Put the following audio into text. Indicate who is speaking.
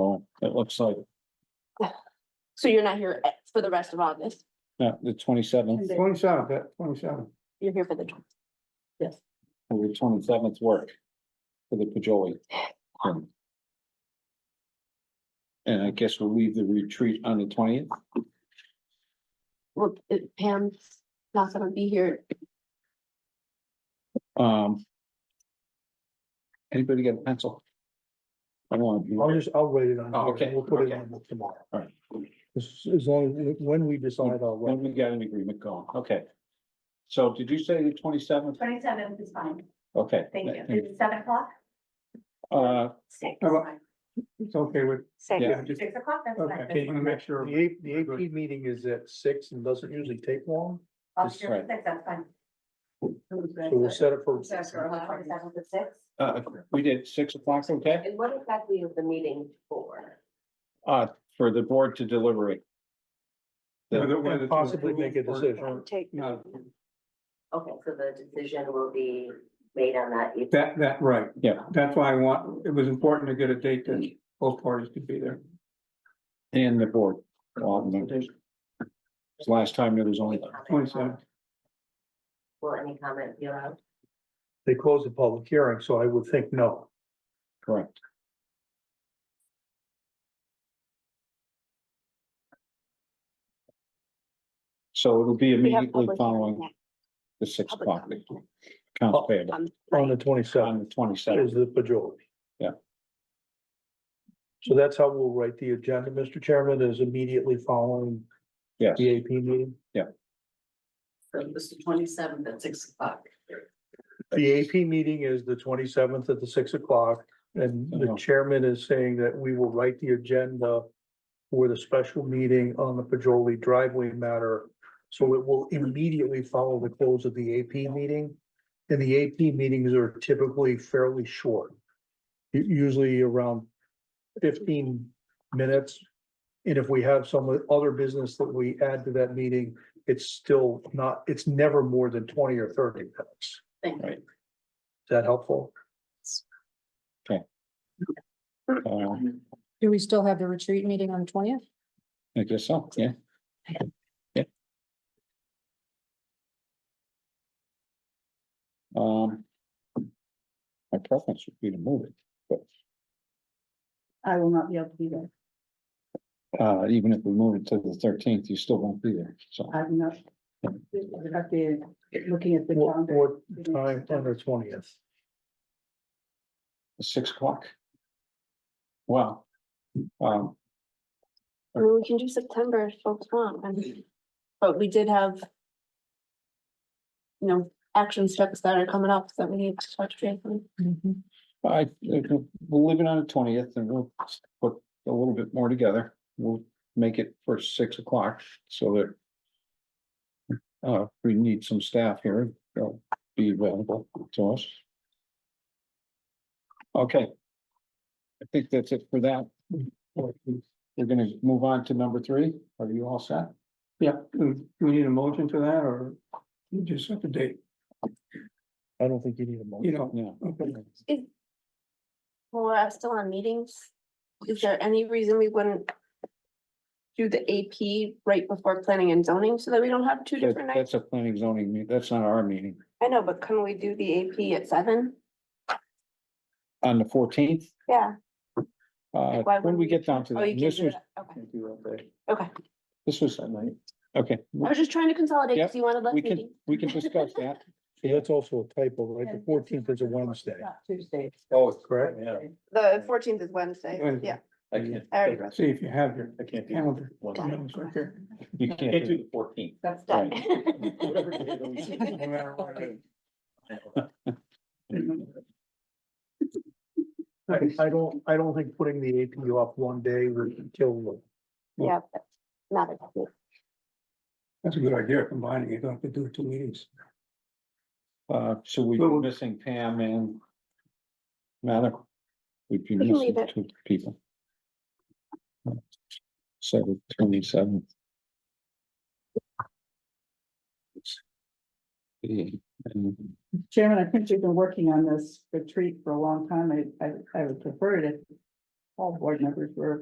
Speaker 1: Oh, it looks like,
Speaker 2: So you're not here at- for the rest of August,
Speaker 1: yeah, the twenty-seventh,
Speaker 3: Twenty-seventh, that, twenty-seventh.
Speaker 2: you're here for the. tw- Yes,
Speaker 1: or the twenty-seventh work for the Pajoli. Um, And I guess we'll leave the retreat on the twentieth.
Speaker 2: well, it- Pam's not gonna be here,
Speaker 1: Um. Anybody got a pencil? I want,
Speaker 3: I'll just, I'll wait it on.
Speaker 1: Oh, okay,
Speaker 3: We'll put it
Speaker 1: okay.
Speaker 3: on tomorrow.
Speaker 1: all right,
Speaker 3: As, as long, as- when we decide, I'll
Speaker 1: when
Speaker 3: wait.
Speaker 1: we got an agreement going, okay. So did you say the twenty-seventh?
Speaker 4: Twenty seventh is fine,
Speaker 1: Okay.
Speaker 4: thank you. Is it seven o'clock?
Speaker 1: Uh,
Speaker 4: Six.
Speaker 3: Oh,
Speaker 4: is
Speaker 3: well,
Speaker 4: fine.
Speaker 3: It's okay with.
Speaker 1: Yeah.
Speaker 4: Six,
Speaker 3: just-
Speaker 4: six o'clock, that's
Speaker 3: Okay.
Speaker 4: fine.
Speaker 3: wanna make sure. The AP, the AP meeting is at six and doesn't usually take long,
Speaker 4: I'll
Speaker 3: That's
Speaker 4: share with
Speaker 1: right.
Speaker 4: six, Oh, that's fine.
Speaker 3: so we'll set it for.
Speaker 4: Twenty seventh at six.
Speaker 1: uh, we did six o'clock, okay?
Speaker 5: And what exactly is the meeting for?
Speaker 1: Uh, for the board to deliberate.
Speaker 3: And Possibly make a decision.
Speaker 2: take,
Speaker 5: Okay, so the decision will be made on that evening.
Speaker 6: That, that, right.
Speaker 1: Yeah.
Speaker 6: That's why I want, it was important to get a date that both parties could be there.
Speaker 1: And the board. all the members. It's the Last time there was only,
Speaker 6: Twenty-seven.
Speaker 5: Will any comment be allowed?
Speaker 3: They close the public hearing, so I would think no.
Speaker 1: correct. So it'll be
Speaker 2: we have
Speaker 1: immediately
Speaker 2: public hearing
Speaker 1: following
Speaker 2: next-
Speaker 1: the six
Speaker 2: public
Speaker 1: o'clock,
Speaker 2: comment Um, next
Speaker 1: accounts payable
Speaker 2: on
Speaker 3: On the
Speaker 2: Friday.
Speaker 3: twenty-seventh
Speaker 1: on the twenty
Speaker 3: is
Speaker 1: seventh.
Speaker 3: the majority.
Speaker 1: Yeah.
Speaker 3: So that's how we'll write the agenda, Mr. Chairman, is immediately following
Speaker 1: Yes,
Speaker 3: the AP meeting.
Speaker 7: So this is twenty-seventh at six o'clock.
Speaker 3: The AP meeting is the twenty-seventh at the six o'clock, and the
Speaker 1: Uh-huh.
Speaker 3: chairman is saying that we will write the agenda for the special meeting on the Pajoli driveway matter. So it will immediately follow the close of the AP meeting, and the AP meetings are typically fairly short. u- Usually around fifteen minutes. And if we have some other business that we add to that meeting, it's still not, it's never more than twenty or thirty minutes.
Speaker 7: Thank you.
Speaker 1: Right.
Speaker 3: Is that helpful?
Speaker 1: uh,
Speaker 8: Do we still have the retreat meeting on the twentieth?
Speaker 1: I guess so, yeah. Yeah. Um. My preference would be to move it,
Speaker 4: I will not be able to be there.
Speaker 1: uh, even if we move it to the thirteenth, you still won't be there, so.
Speaker 4: I'm not, I'd have to, looking at the
Speaker 3: What, what time on the twentieth?
Speaker 1: Six o'clock. Wow. Um,
Speaker 2: I mean, we can do September if folks want, and- but we did have. You know, action steps that are coming up that we need to touch base on.
Speaker 1: I, we'll leave it on the twentieth and we'll put a little bit more together. We'll make it for six o'clock so that. Uh, if we need some staff here, they'll be available to us. Okay. I think that's it for that. We're gonna move on to number three. Are you all set?
Speaker 6: Yeah, do we need a motion to that or you just set the date,
Speaker 3: I don't think you need a motion.
Speaker 6: you know?
Speaker 1: Yeah.
Speaker 6: Okay.
Speaker 2: Well, we're still on meetings. Is there any reason we wouldn't? Do the AP right before planning and zoning so that we don't have two
Speaker 1: That-
Speaker 2: different nights?
Speaker 1: That's a planning zoning, meet- that's not our meeting.
Speaker 2: I know, but can we do the AP at seven?
Speaker 1: On the fourteenth,
Speaker 2: Yeah.
Speaker 1: uh,
Speaker 2: Like, why
Speaker 1: when
Speaker 2: wouldn't
Speaker 1: we
Speaker 2: we-
Speaker 1: get down to
Speaker 2: Oh,
Speaker 1: that,
Speaker 2: you
Speaker 1: and
Speaker 2: can't
Speaker 1: this
Speaker 2: do
Speaker 1: was,
Speaker 2: that. Okay, okay.
Speaker 1: this was, okay.
Speaker 2: I was just trying to consolidate because you wanted less
Speaker 1: We can,
Speaker 2: meetings.
Speaker 1: we can discuss that.
Speaker 3: See, That's also a typo, right? The fourteenth is a Wednesday,
Speaker 5: Tuesday.
Speaker 3: Oh, correct?
Speaker 5: Yeah.
Speaker 2: The fourteenth is Wednesday,
Speaker 6: Wednesday.
Speaker 2: yeah.
Speaker 9: I can't,
Speaker 2: I already wrote
Speaker 6: See if you have your
Speaker 9: I can't do,
Speaker 6: calendar.
Speaker 9: one.
Speaker 6: You know, it's right there.
Speaker 1: You
Speaker 9: I can't
Speaker 1: can't.
Speaker 9: do the fourteenth.
Speaker 5: That's
Speaker 1: Right.
Speaker 9: Whatever day it is.
Speaker 6: No matter what it is.
Speaker 3: I, I don't, I don't think putting the AP off one day would kill them.
Speaker 2: Yeah, but not a
Speaker 6: That's a good idea, combining it, don't have to do two meetings.
Speaker 1: Uh, so we
Speaker 6: Well,
Speaker 1: are
Speaker 6: we'll-
Speaker 1: missing Pam and Mather. We'd be
Speaker 2: We can
Speaker 1: missing
Speaker 2: leave it.
Speaker 1: two people. So twenty-seven.
Speaker 4: Chairman, I think you've been working on this retreat for a long time. I, I, I would prefer it if all board members were